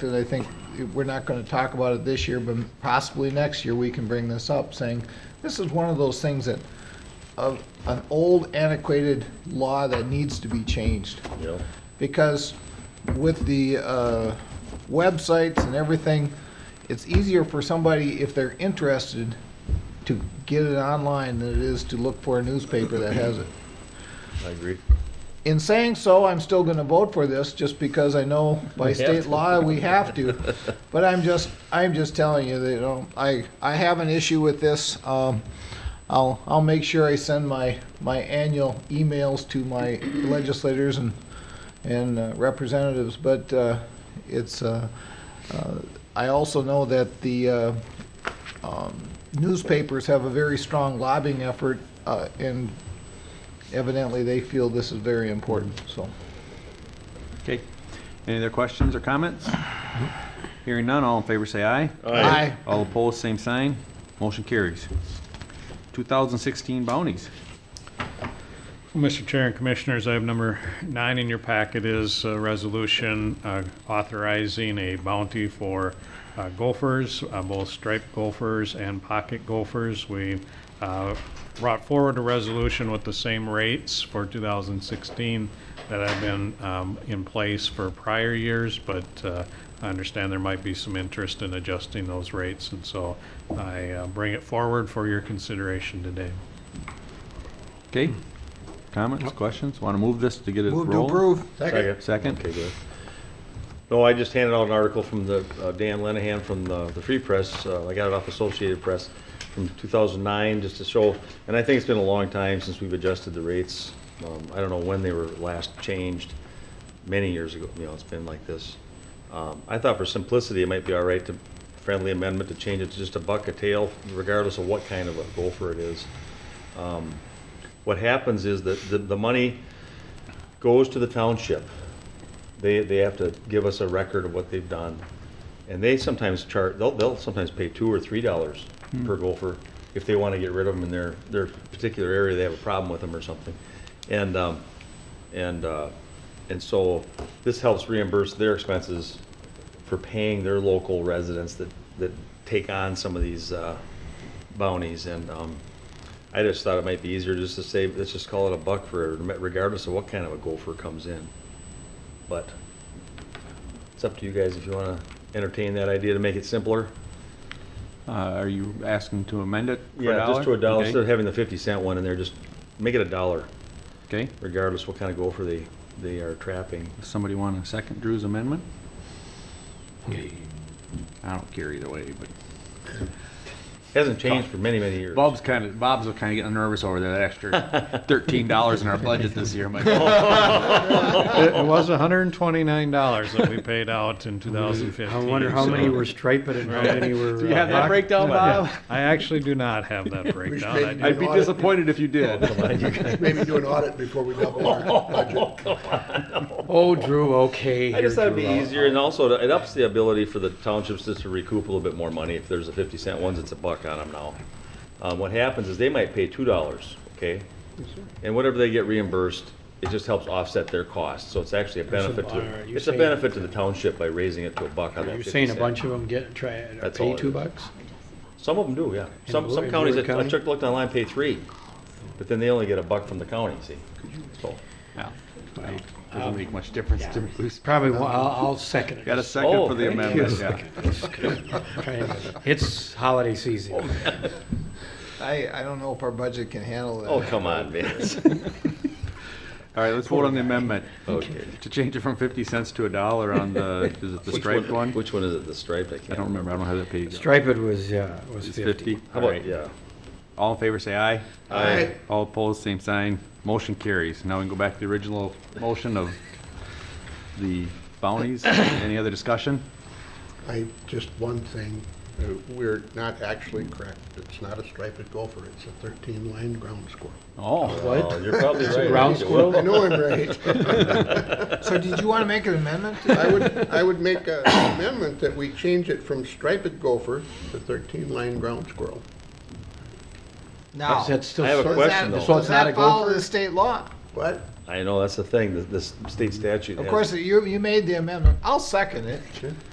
Because I think we're not going to talk about it this year, but possibly next year, we can bring this up, saying, this is one of those things that, of, an old antiquated law that needs to be changed. you know? because with the uh, websites and everything, it's easier for somebody, if they're interested, to get it online than it is to look for a newspaper that has it. I agree. In saying so, I'm still going to vote for this just because I know by have state to. law we have to. But I'm just, I'm just telling you that, you know, I, I have an issue with this. Um, I'll, I'll make sure I send my, my annual emails to my legislators and, and uh, representatives. But uh, it's, uh, uh, I also know that the uh, um, newspapers have a very strong lobbying effort uh, and evidently they feel this is very important, so. Okay. Any other questions or comments? Hearing none, all in favor say aye. Aye. All opposed, same sign. Motion carries. 2016 bounties. Mr. Chair and Commissioners, I have number nine in your packet is a resolution uh, authorizing a bounty for uh, gophers, uh, both striped gophers and pocket gophers. We uh, brought forward a resolution with the same rates for 2016 that have been um, in place for prior years, but uh, I understand there might be some interest in adjusting those rates, and so I uh, bring it forward for your consideration today. Okay? Comments, questions? Want to move this to get it rolling? Second. Second. Okay, good. No, I just handed out an article from the, uh, Dan Lenahan from the, the Free Press, uh, I got it off Associated Press from two thousand nine, just to show, and I think it's been a long time since we've adjusted the rates. Um, I don't know when they were last changed, many years ago, you know, it's been like this. Um, I thought for simplicity, it might be all right to, friendly amendment to change it to just a buck a tail, regardless of what kind of a gopher it is. Um, What happens is that the, the money goes to the township. They, they have to give us a record of what they've done. And they sometimes charge, they'll, they'll sometimes pay two or three dollars per gopher if they want to get rid of them in their, their particular area, they have a problem with them or something. And, um, and, uh, and so this helps reimburse their expenses for paying their local residents that, that take on some of these, uh, bounties. And, um, I just thought it might be easier just to say, let's just call it a buck for, regardless of what kind of a gopher comes in. But it's up to you guys if you want to entertain that idea to make it simpler. Uh, Are you asking to amend it for a Yeah, just to a dollar, Okay. instead of having the 50 cent one in there, just make it a dollar, Okay. regardless what kind of gopher they, they are trapping. Does somebody want to second Drew's amendment? I don't care either way, but. Hasn't changed for many, many years. Bob's kind of Bob's kind of getting nervous over there. That extra thirteen dollars in our budget this year. I'm like, "Oh, It it was hundred and twenty-nine dollars that we paid out in two thousand fifteen. I wonder how many were striped and how many were. you have that breakdown, Bob? I actually do not have that breakdown. I- I'd be disappointed if you did. Maybe do an audit before we double our budget. Oh, Drew, okay. I just thought it'd be Drew, I'll- easier, and also it ups the ability for the townships just to recoup a little bit more money. If there's a fifty cent ones, it's a buck on them now. Um, what happens is they might pay two dollars, okay? And whatever they get reimbursed, it just helps offset their costs, so it's actually a benefit are to, you it's a saying- benefit to the township by raising it to a buck on that Are you fifty saying a cent. bunch of them get, try, That's all pay it two is. bucks? Some of them do, yeah. Some, Bo- some in counties, Board I I County? checked, looked online, pay three, but then they only get a buck from the county, see? So, Yeah. Doesn't make much difference to me. Probably, wa- I'll, I'll second it. Got a second Oh, for the thank you. amendment. Yeah. Try and- It's holiday Oh, season. I, I don't know if our budget can handle that. oh, come on, man. All right, let's vote on the amendment Okay. to change it from fifty cents to a dollar on the is it the Which striped one? Which one is it, the striped? I I can't don't remember. I don't have that page. Striped was, yeah, was It's fifty. fifty. How All about, right. yeah. All in favor, say aye. Aye. All opposed, same sign. Motion carries. Now we can go back to the original motion of the bounties. Any other discussion? I, just one thing, uh, we're not actually correct. It's not a striped gopher, it's a thirteen-line ground squirrel. Oh, Oh, You're probably right. ground squirrel? I know I'm right. So did you want to make an amendment? I would, I would make an amendment that we change it from striped gopher to thirteen-line ground squirrel. No. That's still. I have a So is question though. So it's not a Does that follow gopher? the state law? What? I know, that's the thing, the, the state statute. Of has- course, you, you made the amendment. I'll second it.